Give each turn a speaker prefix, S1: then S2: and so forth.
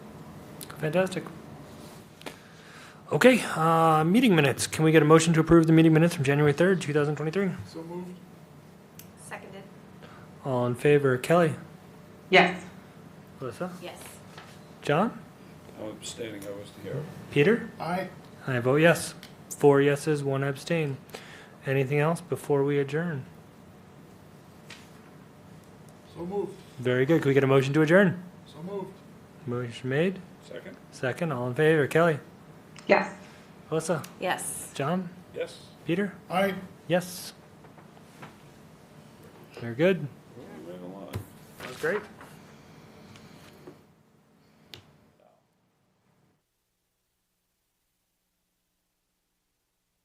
S1: Fantastic. Okay, uh, meeting minutes. Can we get a motion to approve the meeting minutes from January 3rd, 2023?
S2: So moved.
S3: Seconded,
S1: All in favor, Kelly?
S4: Yes.
S1: Alyssa?
S3: yes.
S1: John?
S5: I'm abstaining, I was here.
S1: Peter?
S2: Aye.
S1: I vote yes. Four yeses, one abstain. Anything else before we adjourn?
S2: So moved.
S1: Very good. Can we get a motion to adjourn?
S2: So moved.
S1: Motion made.
S5: Second?
S1: Second, all in favor, Kelly?
S4: Yes.
S1: Alyssa?
S3: Yes.
S1: John?
S5: Yes.
S1: Peter?
S2: Aye.
S1: Yes. Very good.
S5: Moving along.
S1: That was great.